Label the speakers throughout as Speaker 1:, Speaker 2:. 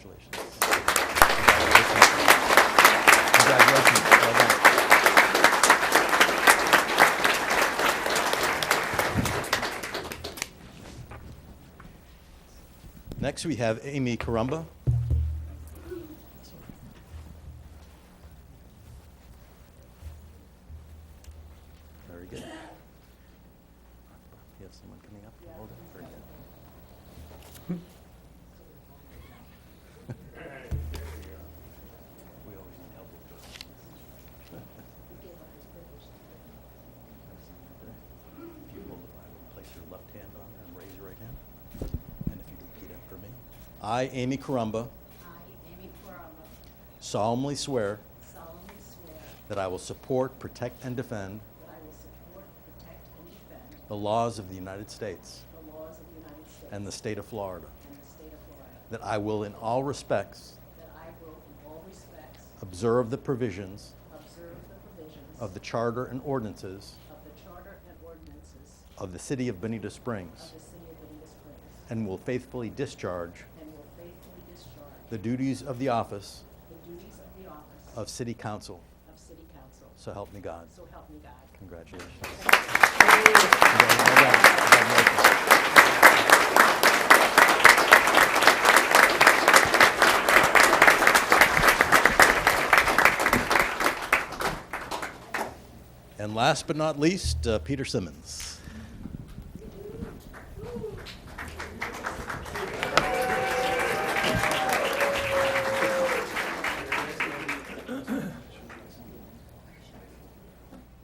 Speaker 1: Congratulations. Congratulations. Well done. Next, we have Amy Carumba. Very good. You have someone coming up? Hold it. Very good. We always need help with those. If you hold the Bible, place your left hand on it and raise your right hand. And if you repeat after me. I, Amy Carumba,
Speaker 2: I, Amy Corralo,
Speaker 1: solemnly swear
Speaker 2: solemnly swear
Speaker 1: that I will support, protect, and defend
Speaker 2: that I will support, protect, and defend
Speaker 1: the laws of the United States
Speaker 2: the laws of the United States
Speaker 1: and the state of Florida,
Speaker 2: and the state of Florida,
Speaker 1: that I will in all respects
Speaker 2: that I will in all respects
Speaker 1: observe the provisions
Speaker 2: observe the provisions
Speaker 1: of the charter and ordinances
Speaker 2: of the charter and ordinances
Speaker 1: of the city of Bonita
Speaker 2: of
Speaker 1: Springs
Speaker 2: the city of Benita Springs,
Speaker 1: and will faithfully discharge
Speaker 2: and will faithfully discharge
Speaker 1: the duties of the office
Speaker 2: the duties of the office
Speaker 1: of City Council.
Speaker 2: of city council.
Speaker 1: So help me God.
Speaker 2: So help me God.
Speaker 1: Congratulations. And last but not least, uh, Peter Simmons.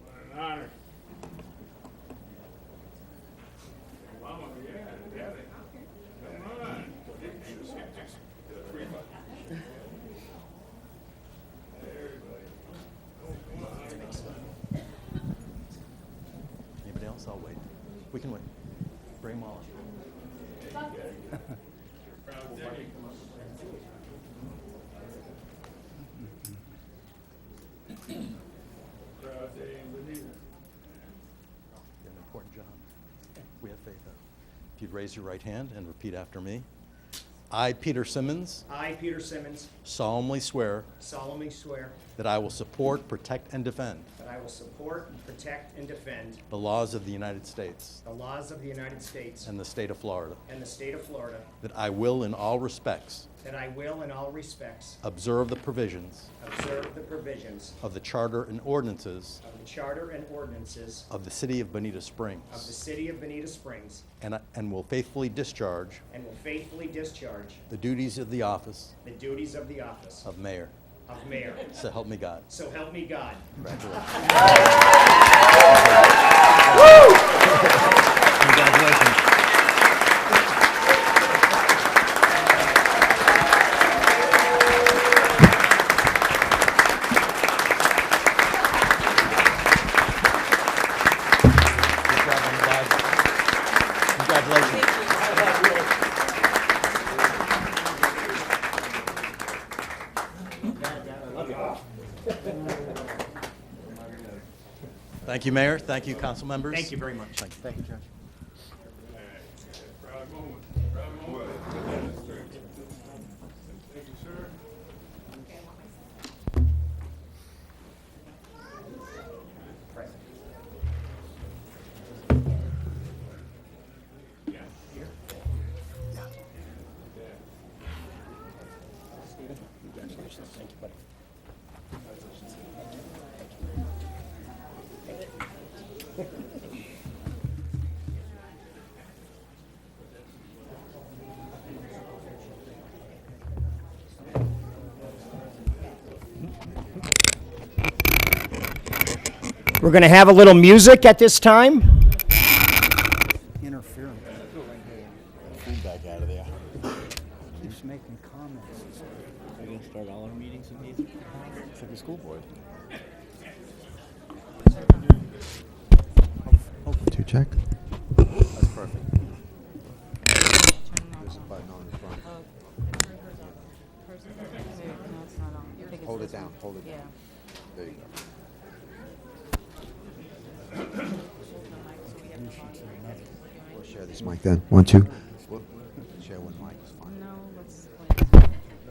Speaker 3: What an honor. Mama, yeah, daddy. Come on.
Speaker 1: Anybody else? I'll wait. We can wait. Bring them all up.
Speaker 3: Proud day in Benita.
Speaker 1: You have an important job. We have faith in you. If you'd raise your right hand and repeat after me. I, Peter Simmons,
Speaker 4: I, Peter Simmons,
Speaker 1: solemnly swear
Speaker 4: solemnly swear
Speaker 1: that I will support, protect, and defend
Speaker 4: that I will support, protect, and defend
Speaker 1: the laws of the United States
Speaker 4: the laws of the United States
Speaker 1: and the state of Florida,
Speaker 4: and the state of Florida,
Speaker 1: that I will, in all respects,
Speaker 4: that I will in all respects
Speaker 1: observe the provisions
Speaker 4: observe the provisions
Speaker 1: of the charter and ordinances
Speaker 4: of the charter and ordinances
Speaker 1: of the city of Bonita
Speaker 4: of the
Speaker 1: Springs,
Speaker 4: city of Benita Springs,
Speaker 1: and, I- and will faithfully discharge
Speaker 4: and will faithfully discharge
Speaker 1: the duties of the office
Speaker 4: the duties of the office
Speaker 1: of mayor.
Speaker 4: of mayor.
Speaker 1: So help me God.
Speaker 4: So help me God.
Speaker 1: Congratulations. Congratulations. Good job, young guys. Congratulations. Thank you, Mayor. Thank you, council members.
Speaker 4: Thank you very much.
Speaker 1: Thank you. Thank you, Judge.
Speaker 3: Proud moment. Proud moment. Thank you, sir.
Speaker 4: We're going to have a little music at this time.
Speaker 5: interference
Speaker 6: feedback out of there.
Speaker 5: keeps making comments.
Speaker 6: We're gonna start all our meetings with music. It's like a school board.
Speaker 5: Two check.
Speaker 6: That's perfect. There's a button on the front. Hold it down, hold it down. There you go. We'll share this mic then. One, two. Share one mic, it's fine.
Speaker 7: No, let's like.